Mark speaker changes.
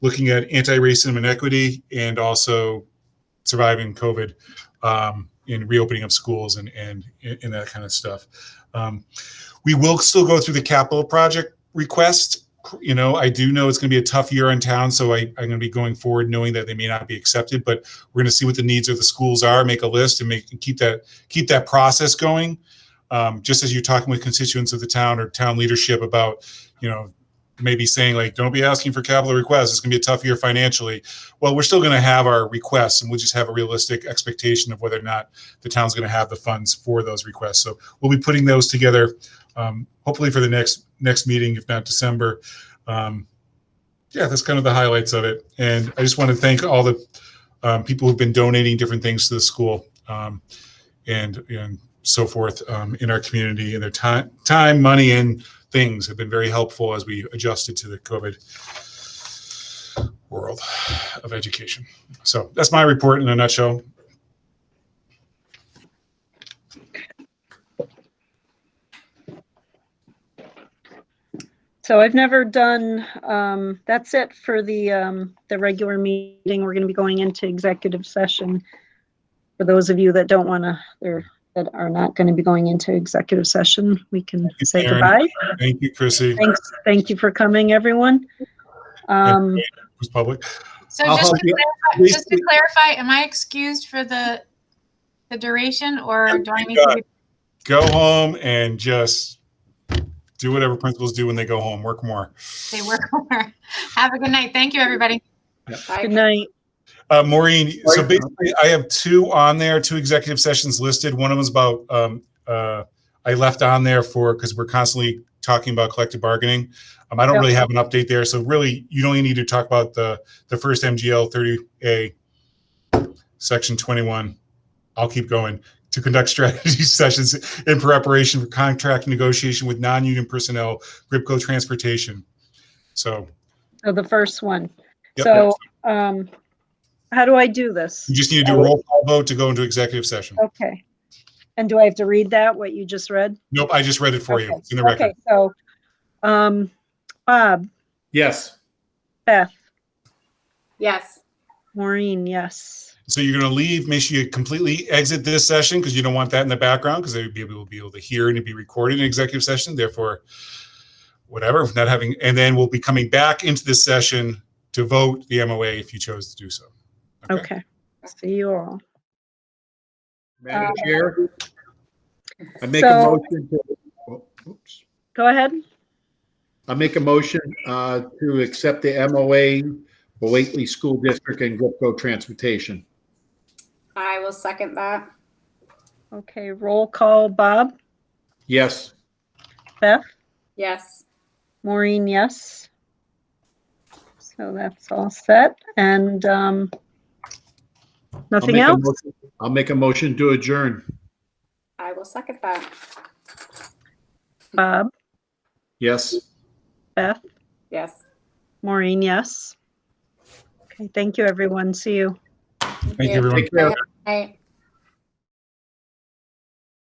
Speaker 1: looking at anti-racism and equity and also surviving COVID um, and reopening of schools and, and, and that kind of stuff. Um, we will still go through the capital project request. You know, I do know it's going to be a tough year in town, so I, I'm going to be going forward knowing that they may not be accepted, but we're going to see what the needs of the schools are, make a list and make, and keep that, keep that process going. Um, just as you're talking with constituents of the town or town leadership about, you know, maybe saying like, don't be asking for capital requests. It's going to be a tough year financially. Well, we're still going to have our requests and we'll just have a realistic expectation of whether or not the town's going to have the funds for those requests. So we'll be putting those together, um, hopefully for the next, next meeting, if not December. Um, yeah, that's kind of the highlights of it. And I just want to thank all the, um, people who've been donating different things to the school. Um, and, and so forth, um, in our community and their time, time, money and things have been very helpful as we adjusted to the COVID world of education. So that's my report in a nutshell.
Speaker 2: So I've never done, um, that's it for the, um, the regular meeting. We're going to be going into executive session. For those of you that don't want to, or that are not going to be going into executive session, we can
Speaker 1: you,
Speaker 2: say
Speaker 1: Karen.
Speaker 2: goodbye.
Speaker 1: Thank you, Chrissy. It
Speaker 2: Thanks, thank you for coming, everyone. Um,
Speaker 1: was public.
Speaker 3: So
Speaker 4: I'll
Speaker 3: just
Speaker 4: help
Speaker 3: to,
Speaker 4: you.
Speaker 3: clarify, just to clarify, am I excused for the, the duration or do I need to? be-
Speaker 1: Go home and just do whatever principals do when they go home, work more.
Speaker 3: They work over. Have a good night. Thank you, everybody.
Speaker 2: good night.
Speaker 1: Uh, Maureen, so
Speaker 4: Right.
Speaker 1: basically, I have two on there, two executive sessions listed. One of them's about, um, uh, I left on there for, because we're constantly talking about collective bargaining. Um, I don't
Speaker 2: Yep.
Speaker 1: really have an update there, so really, you don't need to talk about the, the first MGL thirty A, section twenty-one. I'll keep going. To conduct strategy sessions in preparation for contract negotiation with non-union personnel, Gripco Transportation. So,
Speaker 2: So the first one.
Speaker 1: Yep.
Speaker 2: So, um, how do I do this?
Speaker 1: you just need to do a roll call vote to go into executive session.
Speaker 2: Okay. And do I have to read that, what you just read?
Speaker 1: Nope, I just read it for you.
Speaker 2: Okay.
Speaker 1: It's in the record.
Speaker 2: Okay, so, um, Bob,
Speaker 4: Yes.
Speaker 2: Beth,
Speaker 5: Yes.
Speaker 2: Maureen, yes.
Speaker 1: So you're going to leave, make sure you completely exit this session because you don't want that in the background because they would be able, be able to hear and it'd be recorded in executive session. Therefore, whatever, not having, and then we'll be coming back into this session to vote the MOA if you chose to do so.
Speaker 2: Okay. See you all.
Speaker 4: Madam
Speaker 2: Uh,
Speaker 4: Chair? I make a
Speaker 2: so-
Speaker 4: motion to, oh, oops.
Speaker 2: Go ahead.
Speaker 4: I make a motion uh, to accept the MOA for Waitley School District and Gripco Transportation.
Speaker 5: I will second that.
Speaker 2: Okay, roll call, Bob,
Speaker 4: Yes.
Speaker 2: Beth,
Speaker 5: Yes.
Speaker 2: Maureen, yes. So that's all set and, um,
Speaker 4: I'll
Speaker 2: nothing
Speaker 4: make a
Speaker 2: else?
Speaker 4: motion- I'll make a motion to adjourn.
Speaker 5: I will second that.
Speaker 2: Bob,
Speaker 4: Yes.
Speaker 2: Beth,
Speaker 5: Yes.
Speaker 2: Maureen, yes. Okay, thank you, everyone. See you.
Speaker 1: Thank you, everyone.
Speaker 4: Take care.
Speaker 5: Aye.